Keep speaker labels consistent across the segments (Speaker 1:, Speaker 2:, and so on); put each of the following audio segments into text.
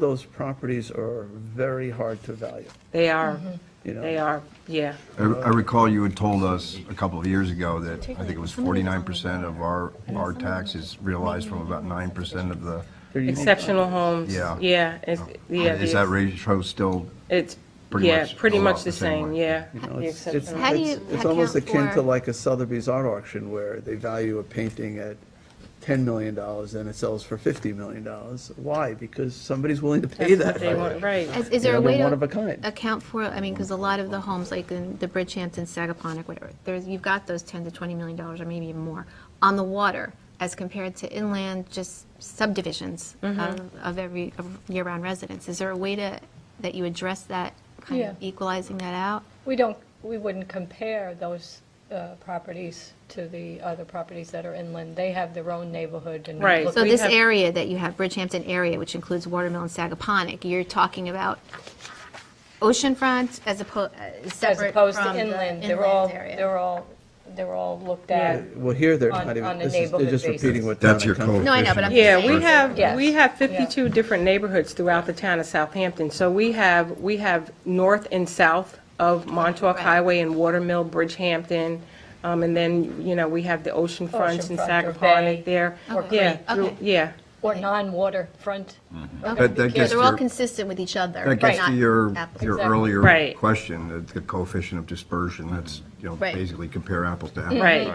Speaker 1: those properties are very hard to value,
Speaker 2: They are,
Speaker 1: you know?
Speaker 2: they are, yeah.
Speaker 3: I I recall you had told us a couple of years ago that I think it was 49% of our, our tax is realized from about 9% of the,
Speaker 1: They're unique.
Speaker 2: Exceptional homes.
Speaker 3: Yeah. Oh,
Speaker 2: Yeah, it's, yeah.
Speaker 3: is that ratio still,
Speaker 2: It's,
Speaker 3: pretty
Speaker 2: yeah,
Speaker 3: much
Speaker 2: pretty
Speaker 3: a
Speaker 2: much
Speaker 3: lot
Speaker 2: the
Speaker 3: the same
Speaker 2: same,
Speaker 3: way?
Speaker 2: yeah.
Speaker 1: You know,
Speaker 2: The
Speaker 1: it's- it's-
Speaker 2: exceptional.
Speaker 4: How do you
Speaker 1: it's- It's almost
Speaker 4: account
Speaker 1: akin to
Speaker 4: for-
Speaker 1: like a Sotheby's art auction where they value a painting at $10 million and it sells for $50 million. Why? Because somebody's willing to pay that.
Speaker 2: That's what they want, Right.
Speaker 4: Is, is there
Speaker 1: Yeah, they're
Speaker 4: a way to?
Speaker 1: one of a kind.
Speaker 4: Account for, I mean, because a lot of the homes, like in the Bridgehampton, Sagaponic, whatever, there's, you've got those 10 to 20 million dollars or maybe even more on the water as compared to inland, just subdivisions
Speaker 5: Mm-hmm.
Speaker 4: of, of every, of year-round residents. Is there a way to, that you address that, kind of
Speaker 5: Yeah.
Speaker 4: equalizing that out?
Speaker 5: We don't, we wouldn't compare those uh, properties to the other properties that are inland. They have their own neighborhood and.
Speaker 2: Right.
Speaker 5: look-
Speaker 4: So
Speaker 2: we
Speaker 4: this
Speaker 2: have-
Speaker 4: area that you have, Bridgehampton area, which includes Watermill and Sagaponic, you're talking about oceanfront as opposed,
Speaker 5: As
Speaker 4: separate
Speaker 5: opposed
Speaker 4: from
Speaker 5: to
Speaker 4: the
Speaker 5: inland,
Speaker 4: inland
Speaker 5: they're all,
Speaker 4: area.
Speaker 5: they're all, they're all looked
Speaker 2: Yeah.
Speaker 5: at.
Speaker 1: Well, here they're
Speaker 5: On-
Speaker 1: not even,
Speaker 5: on a
Speaker 1: this is- they're
Speaker 5: neighborhood
Speaker 1: just
Speaker 5: basis.
Speaker 1: repeating what.
Speaker 3: That's
Speaker 1: Donna
Speaker 3: your
Speaker 1: Kemp-
Speaker 4: No, I know, but I'm-
Speaker 2: Yeah, we have,
Speaker 5: Yes.
Speaker 2: we have
Speaker 5: Yeah.
Speaker 2: 52 different neighborhoods throughout the town of Southampton. So we have, we have north and south of Montauk
Speaker 4: Right.
Speaker 2: Highway and Watermill, Bridgehampton, um, and then, you know, we have the ocean fronts in
Speaker 5: Oceanfront or bay
Speaker 2: Sagaponic there.
Speaker 5: or
Speaker 2: Yeah,
Speaker 5: creek.
Speaker 2: through-
Speaker 4: Okay.
Speaker 2: Yeah,
Speaker 5: Or non-water front.
Speaker 3: that that
Speaker 4: Yeah,
Speaker 3: gets
Speaker 4: they're all
Speaker 3: to,
Speaker 4: consistent with each other.
Speaker 3: that gets to
Speaker 4: not
Speaker 3: your,
Speaker 4: apples.
Speaker 3: your
Speaker 5: Exactly.
Speaker 3: earlier
Speaker 2: Right.
Speaker 3: question, the- the coefficient of dispersion, that's, you know,
Speaker 4: Right.
Speaker 3: basically compare apples to apples.
Speaker 2: right.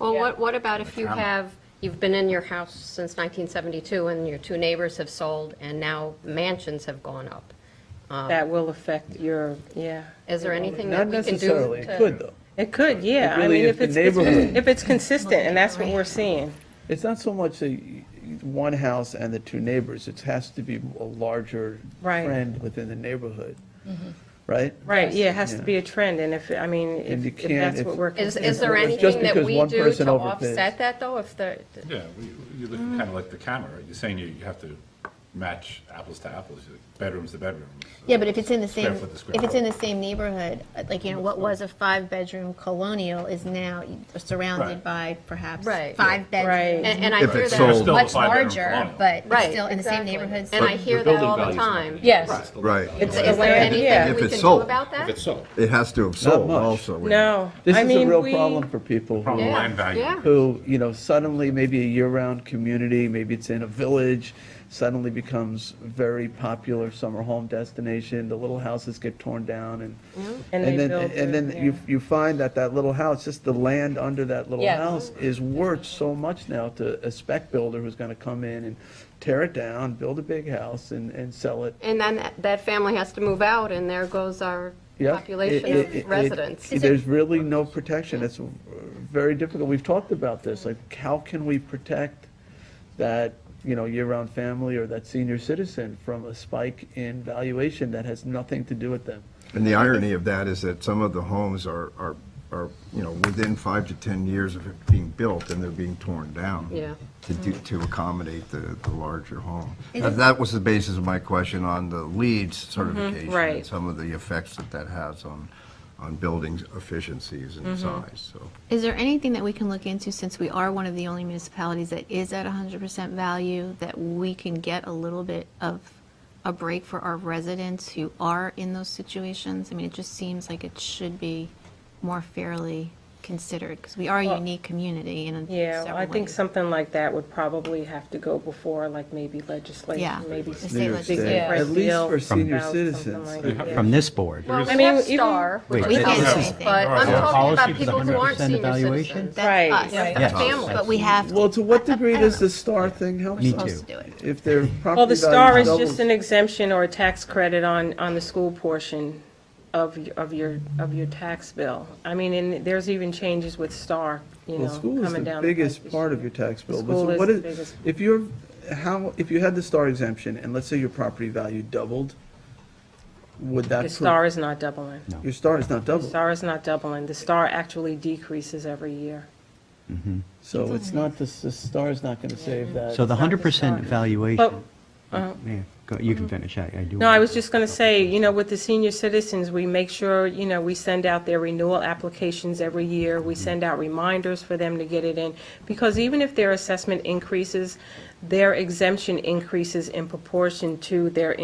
Speaker 6: Well,
Speaker 5: Yeah.
Speaker 6: what, what about if you have, you've been in your house since 1972, and your two neighbors have sold, and now mansions have gone up?
Speaker 2: That will affect your, yeah.
Speaker 6: Is there anything
Speaker 1: Not
Speaker 6: that we can
Speaker 1: necessarily,
Speaker 6: do
Speaker 1: it
Speaker 6: to?
Speaker 1: could though.
Speaker 2: It could, yeah.
Speaker 1: It
Speaker 2: I
Speaker 1: really
Speaker 2: mean,
Speaker 1: is
Speaker 2: if
Speaker 1: the
Speaker 2: it's, if
Speaker 1: neighborhood.
Speaker 2: it's- if it's consistent, and that's what we're seeing.
Speaker 1: It's not so much a, one house and the two neighbors, it has to be a larger
Speaker 2: Right. Mm-hmm.
Speaker 1: trend within the neighborhood, right?
Speaker 2: Right, yeah, it has to
Speaker 1: Yeah.
Speaker 2: be a trend, and if, I mean,
Speaker 1: And
Speaker 2: if
Speaker 1: you
Speaker 2: if
Speaker 1: can't-
Speaker 2: that's
Speaker 1: if-
Speaker 2: what we're.
Speaker 6: Is,
Speaker 2: considering.
Speaker 6: is there
Speaker 1: Just
Speaker 6: anything that
Speaker 1: because
Speaker 6: we
Speaker 1: one
Speaker 6: do
Speaker 1: person
Speaker 6: to
Speaker 1: overbids.
Speaker 6: offset that, though, if the,
Speaker 7: Yeah, we- you look kind of like the camera, you're saying you you have to match apples to apples, You're like, bedrooms to bedrooms.
Speaker 4: Yeah, but if it's in the
Speaker 7: Square
Speaker 4: same,
Speaker 7: foot to square
Speaker 4: if it's
Speaker 7: foot.
Speaker 4: in the same neighborhood, uh, like, you know, what was a five-bedroom colonial is now surrounded
Speaker 7: Right.
Speaker 4: by perhaps
Speaker 6: Right.
Speaker 4: five
Speaker 2: Right.
Speaker 4: bedrooms.
Speaker 6: and and I
Speaker 3: If
Speaker 6: hear
Speaker 3: it's
Speaker 6: that,
Speaker 3: sold.
Speaker 7: Still a
Speaker 4: Much
Speaker 7: five-bedroom
Speaker 4: larger,
Speaker 7: colonial.
Speaker 4: but it's
Speaker 6: right.
Speaker 4: still in the same
Speaker 6: exactly.
Speaker 4: neighborhood.
Speaker 6: And I hear that all the time.
Speaker 5: Yes.
Speaker 3: Right.
Speaker 2: It's
Speaker 6: Is there
Speaker 2: land- yeah.
Speaker 6: anything
Speaker 3: If
Speaker 6: we
Speaker 3: it's
Speaker 6: can do
Speaker 3: sold.
Speaker 6: about that?
Speaker 7: sold.
Speaker 3: It has to have sold
Speaker 1: much.
Speaker 3: also.
Speaker 2: No.
Speaker 1: This
Speaker 2: I
Speaker 1: is a
Speaker 2: mean,
Speaker 1: real
Speaker 2: we-
Speaker 1: problem for people who
Speaker 7: Problem
Speaker 6: Yeah,
Speaker 7: land value.
Speaker 6: yeah.
Speaker 1: who, you know, suddenly maybe a year-round community, maybe it's in a village, suddenly becomes very popular summer home destination, the little houses get torn down and, and
Speaker 2: And they
Speaker 1: then,
Speaker 2: build
Speaker 1: and
Speaker 2: the-
Speaker 1: then you, you find that that little house, just the land under that little
Speaker 5: Yes.
Speaker 1: house is worth so much now to a spec builder who's gonna come in and tear it down, build a big house and, and sell it.
Speaker 6: And then that- that family has to move out, and there goes our
Speaker 1: Yeah. It-
Speaker 6: population
Speaker 1: it- it-
Speaker 6: of residents.
Speaker 4: Is
Speaker 1: There's really no protection. It's uh, very difficult. We've talked about this, like, how can we protect that, you know, year-round family or that senior citizen from a spike in valuation that has nothing to do with them?
Speaker 3: And the irony of that is that some of the homes are, are, are, you know, within five to 10 years of it being built, and they're being torn down.
Speaker 6: Yeah.
Speaker 3: To do, to accommodate the, the larger home. And That was the basis of my question on the LEED certification.
Speaker 2: right.
Speaker 3: And some of the effects that that has on, on building efficiencies and size, so.
Speaker 4: Is there anything that we can look into, since we are one of the only municipalities that is at 100% value, that we can get a little bit of a break for our residents who are in those situations? I mean, it just seems like it should be more fairly considered, because we are a unique community in
Speaker 2: Yeah, well,
Speaker 4: several
Speaker 2: I think
Speaker 4: ways.
Speaker 2: something like that would probably have to go before, like, maybe
Speaker 4: Yeah.
Speaker 2: legislation, maybe.
Speaker 4: The
Speaker 2: s-
Speaker 4: state
Speaker 1: New York State.
Speaker 4: legislature.
Speaker 5: Yeah.
Speaker 1: At least
Speaker 2: Deal
Speaker 1: for senior
Speaker 2: about something
Speaker 1: citizens.
Speaker 2: like
Speaker 1: They
Speaker 2: that.
Speaker 8: From this board?
Speaker 6: Well,
Speaker 7: is-
Speaker 2: I mean,
Speaker 6: Pep
Speaker 2: even-
Speaker 6: Star,
Speaker 8: Wait,
Speaker 6: which is
Speaker 4: we can't
Speaker 6: us,
Speaker 4: do anything.
Speaker 6: But I'm
Speaker 7: Our
Speaker 6: talking
Speaker 8: policy
Speaker 6: about
Speaker 8: is
Speaker 6: people who aren't
Speaker 8: 100%
Speaker 6: senior
Speaker 8: evaluation?
Speaker 6: citizens.
Speaker 2: Right.
Speaker 4: That's
Speaker 5: Right.
Speaker 4: us,
Speaker 8: Yes.
Speaker 6: Families.
Speaker 4: but we have to.
Speaker 1: Well, to what degree does
Speaker 4: know.
Speaker 1: the STAR thing help
Speaker 8: Me
Speaker 1: us?
Speaker 8: too.
Speaker 4: supposed to do it.
Speaker 1: If their property
Speaker 2: Well, the star
Speaker 1: value
Speaker 2: is just
Speaker 1: doubles-
Speaker 2: an exemption or a tax credit on, on the school portion of, y- of your, of your tax bill. I mean, and there's even changes with star, you know,
Speaker 1: Well, school is
Speaker 2: coming
Speaker 1: the
Speaker 2: down. pike
Speaker 1: biggest
Speaker 2: this
Speaker 1: part
Speaker 2: year.
Speaker 1: of your tax
Speaker 2: The
Speaker 1: bill, but
Speaker 2: school
Speaker 1: so
Speaker 2: is
Speaker 1: what
Speaker 2: the
Speaker 1: is,
Speaker 2: biggest-
Speaker 1: if you're, how, if you had the star exemption, and let's say your property value doubled, would that?
Speaker 2: The
Speaker 1: pro-
Speaker 2: star is not doubling.
Speaker 1: Your star is not
Speaker 2: The
Speaker 1: doubled,
Speaker 2: star is not doubling. The star actually decreases every year.
Speaker 1: so it's not, the, the star is not gonna save that.
Speaker 8: So the hundred percent
Speaker 2: But
Speaker 8: valuation,
Speaker 4: Oh.
Speaker 8: yeah, go- you can finish, I, I do.
Speaker 2: No, I was just going to say, you know, with the senior citizens, we make sure, you know, we send out their renewal applications every year. We send out reminders for them to get it in. Because even if their assessment increases, their exemption increases in proportion to their